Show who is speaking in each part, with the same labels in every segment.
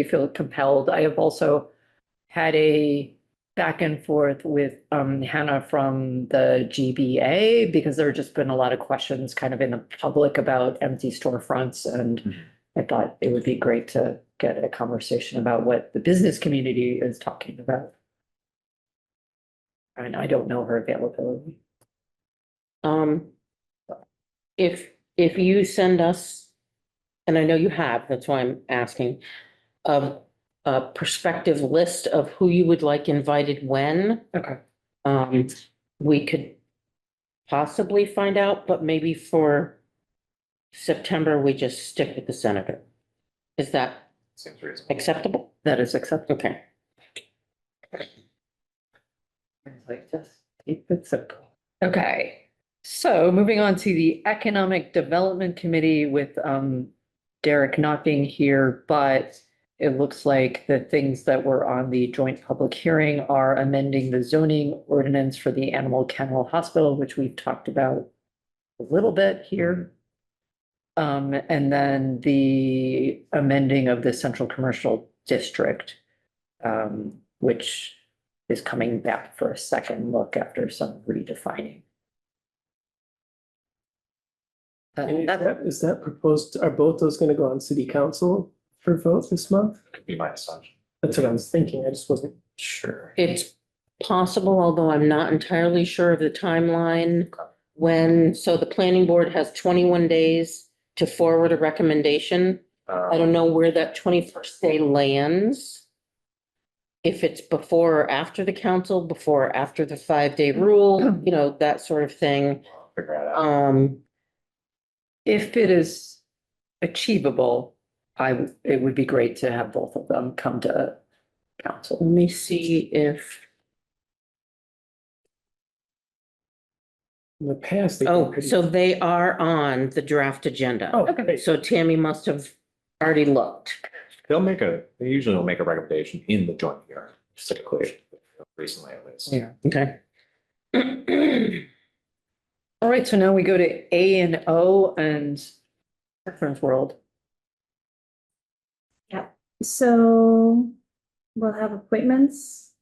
Speaker 1: you feel compelled. I have also had a back and forth with um Hannah from the GBA because there have just been a lot of questions kind of in the public about empty storefronts and I thought it would be great to get a conversation about what the business community is talking about. And I don't know her availability.
Speaker 2: Um, if, if you send us, and I know you have, that's why I'm asking, of a prospective list of who you would like invited when,
Speaker 1: Okay.
Speaker 2: um, we could possibly find out, but maybe for September, we just stick with the senator. Is that
Speaker 3: Seems reasonable.
Speaker 2: acceptable?
Speaker 1: That is acceptable.
Speaker 2: Okay.
Speaker 1: It's like, just keep it simple. Okay, so moving on to the Economic Development Committee with um Derek not being here, but it looks like the things that were on the joint public hearing are amending the zoning ordinance for the Animal Kennel Hospital, which we've talked about a little bit here. Um, and then the amending of the Central Commercial District, um, which is coming back for a second look after some redefining. Uh,
Speaker 4: And is
Speaker 1: that's-
Speaker 4: that, is that proposed, are both those gonna go on city council for vote this month?
Speaker 3: Could be my assumption.
Speaker 4: That's what I was thinking, I just wasn't sure.
Speaker 2: It's possible, although I'm not entirely sure of the timeline. When, so the planning board has twenty-one days to forward a recommendation.
Speaker 3: Um,
Speaker 2: I don't know where that twenty-first day lands. If it's before or after the council, before or after the five-day rule, you know, that sort of thing.
Speaker 3: Figure it out.
Speaker 2: Um,
Speaker 1: if it is achievable, I, w- it would be great to have both of them come to council.
Speaker 2: let me see if,
Speaker 4: In the past. they've been
Speaker 2: oh,
Speaker 4: pretty-
Speaker 2: so they are on the draft agenda.
Speaker 4: Oh, great.
Speaker 2: So Tammy must have already looked.
Speaker 3: They'll make a, they usually will make a recommendation in the joint hearing, just like clear, recently at least.
Speaker 1: Yeah.
Speaker 2: Okay.
Speaker 1: All right, so now we go to A and O and Children's World.
Speaker 5: So we'll have appointments.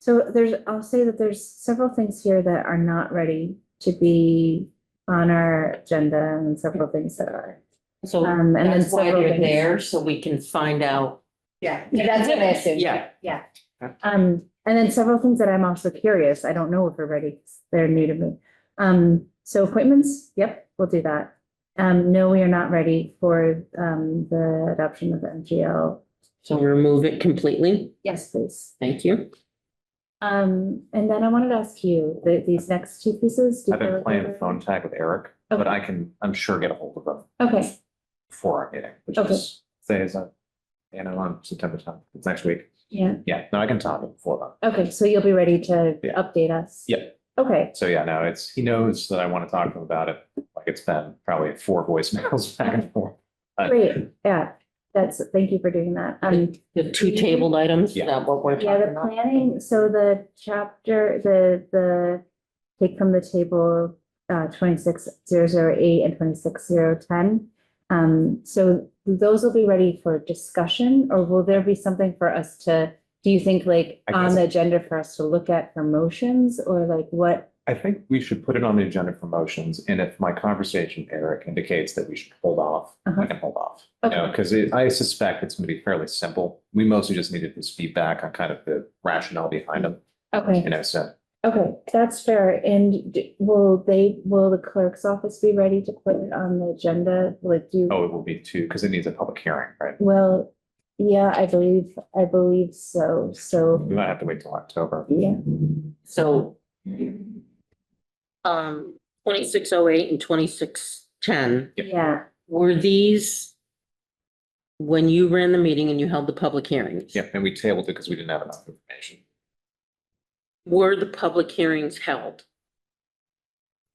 Speaker 5: So there's, I'll say that there's several things here that are not ready to be on our agenda and several things that are.
Speaker 2: So
Speaker 5: Um, and then
Speaker 2: Oh, that's why
Speaker 5: several
Speaker 2: they're
Speaker 5: things-
Speaker 2: there, so we can find out.
Speaker 5: Yeah, that's what I assumed.
Speaker 2: Yeah.
Speaker 5: Yeah. Um, and then several things that I'm also curious. I don't know if we're ready. 'cause They're new to me. Um, so appointments, yep, we'll do that. Um, no, we are not ready for, um, the adoption of the MGL.
Speaker 2: So remove it completely.
Speaker 5: Yes, please.
Speaker 2: Thank you.
Speaker 5: Um, and then I wanted to ask you, the, these next two pieces. do you
Speaker 3: I've
Speaker 5: feel
Speaker 3: been
Speaker 5: like
Speaker 3: playing
Speaker 5: they're-
Speaker 3: phone tag with Eric, but I can, I'm sure get a hold of them
Speaker 5: Okay,
Speaker 3: before our meeting, which
Speaker 5: Okay.
Speaker 3: is, say, is that, you know, on September tenth, it's next week.
Speaker 5: yeah,
Speaker 3: Yeah, no, I can talk to him before that.
Speaker 5: okay, so you'll be ready to
Speaker 3: Yeah.
Speaker 5: update us?
Speaker 3: Yeah.
Speaker 5: Okay,
Speaker 3: So yeah, no, it's, he knows that I want to talk to him about it. Like it's been probably four voicemails back and forth. Uh,
Speaker 5: great, yeah, that's, thank you for doing that. Um,
Speaker 2: The two tabled items, is
Speaker 3: Yeah.
Speaker 2: that what we're
Speaker 5: yeah,
Speaker 2: talking
Speaker 5: the
Speaker 2: about?
Speaker 5: planning, so the chapter, the, the take from the table, uh, twenty-six zero zero eight and twenty-six zero ten. Um, so those will be ready for discussion, or will there be something for us to, do you think like
Speaker 3: I
Speaker 5: on
Speaker 3: guess-
Speaker 5: the agenda for us to look at for motions, or like what?
Speaker 3: I think we should put it on the agenda for motions, and if my conversation with Eric indicates that we should hold off, we
Speaker 5: Uh-huh.
Speaker 3: can hold off. You
Speaker 5: Okay.
Speaker 3: know, because I suspect it's gonna be fairly simple. We mostly just needed his feedback on kind of the rationale behind them, you
Speaker 5: Okay,
Speaker 3: know, so.
Speaker 5: okay, that's fair. And d- will they, will the clerk's office be ready to put it on the agenda? Like, do, you
Speaker 3: Oh, it will be two, because it needs a public hearing, right?
Speaker 5: well, yeah, I believe, I believe so, so,
Speaker 3: We might have to wait till October.
Speaker 5: yeah.
Speaker 2: So. Um, twenty-six oh eight and twenty-six ten,
Speaker 3: Yeah.
Speaker 5: Yeah,
Speaker 2: were these when you ran the meeting and you held the public hearings?
Speaker 3: Yeah, and we tabled it because we didn't have enough information.
Speaker 2: Were the public hearings held?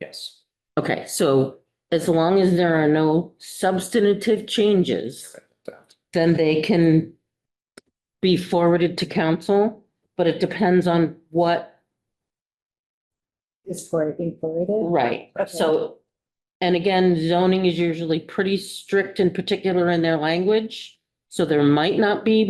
Speaker 3: Yes.
Speaker 2: Okay, so as long as there are no substantive changes,
Speaker 3: uh,
Speaker 2: then they can be forwarded to council, but it depends on what,
Speaker 5: is for being forwarded.
Speaker 2: right, so. And again, zoning is usually pretty strict and particular in their language, So there might not be